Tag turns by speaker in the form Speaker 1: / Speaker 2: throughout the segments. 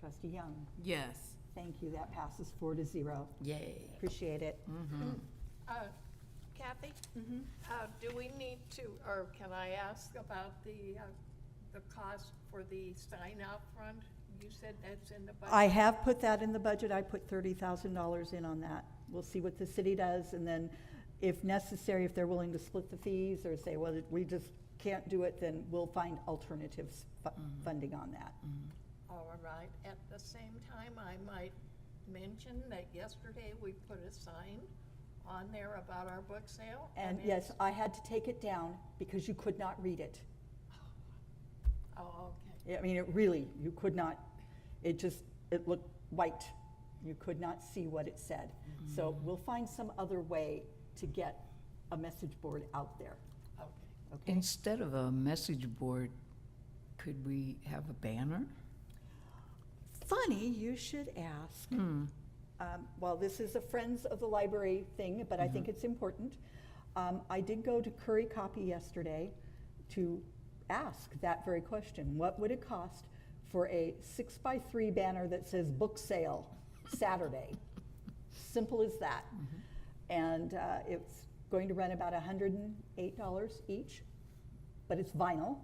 Speaker 1: Trustee Young.
Speaker 2: Yes.
Speaker 1: Thank you. That passes four to zero.
Speaker 2: Yay.
Speaker 1: Appreciate it.
Speaker 3: Uh, Kathy? Uh, Do we need to, or can I ask about the, uh, the cost for the sign out front? You said that's in the budget.
Speaker 1: I have put that in the budget. I put thirty thousand dollars in on that. We'll see what the city does, and then if necessary, if they're willing to split the fees or say, well, we just can't do it, then we'll find alternatives fu- funding on that.
Speaker 3: All right, at the same time, I might mention that yesterday we put a sign on there about our book sale.
Speaker 1: And
Speaker 3: it's-
Speaker 1: yes, I had to take it down because you could not read it.
Speaker 3: Oh, okay.
Speaker 1: I mean, it really, you could not, it just, it looked white. You could not see what it said. So we'll find some other way to get a message board out there.
Speaker 3: Okay.
Speaker 1: Okay.
Speaker 2: Instead of a message board, could we have a banner?
Speaker 1: Funny, you should ask. Um, While this is a Friends of the Library thing, but I think it's important, um, I did go to Curry Copy yesterday to ask that very question. What would it cost for a six-by-three banner that says book sale Saturday? Simple as that. And uh, it's going to run about $108 each, but it's vinyl,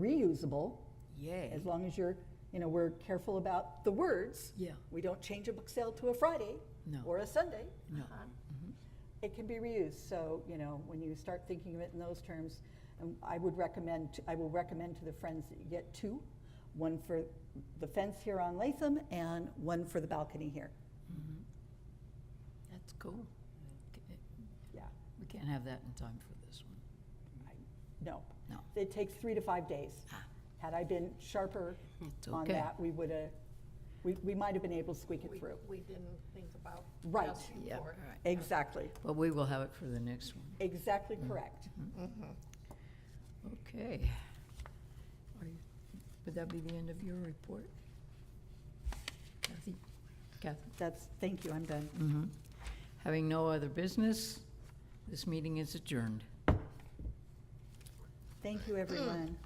Speaker 1: reusable,
Speaker 2: Yay.
Speaker 1: as long as you're, you know, we're careful about the words.
Speaker 2: Yeah.
Speaker 1: We don't change a book sale to a Friday
Speaker 2: No.
Speaker 1: or a Sunday. Uh-huh.
Speaker 2: No. Mm-hmm.
Speaker 1: It can be reused. So, you know, when you start thinking of it in those terms, um, I would recommend, I will recommend to the friends that you get two, one for the fence here on Latham and one for the balcony here.
Speaker 2: That's cool. Okay,
Speaker 1: Yeah.
Speaker 2: We can't have that in time for this one.
Speaker 1: I- No.
Speaker 2: No.
Speaker 1: It takes three to five days.
Speaker 2: Ah.
Speaker 1: Had I been sharper
Speaker 2: It's
Speaker 1: on
Speaker 2: okay.
Speaker 1: that, we would have, we, we might have been able to squeak
Speaker 3: We-
Speaker 1: it through.
Speaker 3: We didn't think about
Speaker 1: Right.
Speaker 3: asking
Speaker 2: Yeah, all
Speaker 3: for it.
Speaker 2: right.
Speaker 1: Exactly,
Speaker 2: But we will have it for the next one.
Speaker 1: exactly correct.
Speaker 3: Mm-hmm.
Speaker 2: Okay. Are you- Would that be the end of your report? Kathy? Kathy?
Speaker 1: That's, thank you, I'm done.
Speaker 2: Mhm. Having no other business, this meeting is adjourned.
Speaker 1: Thank you, everyone.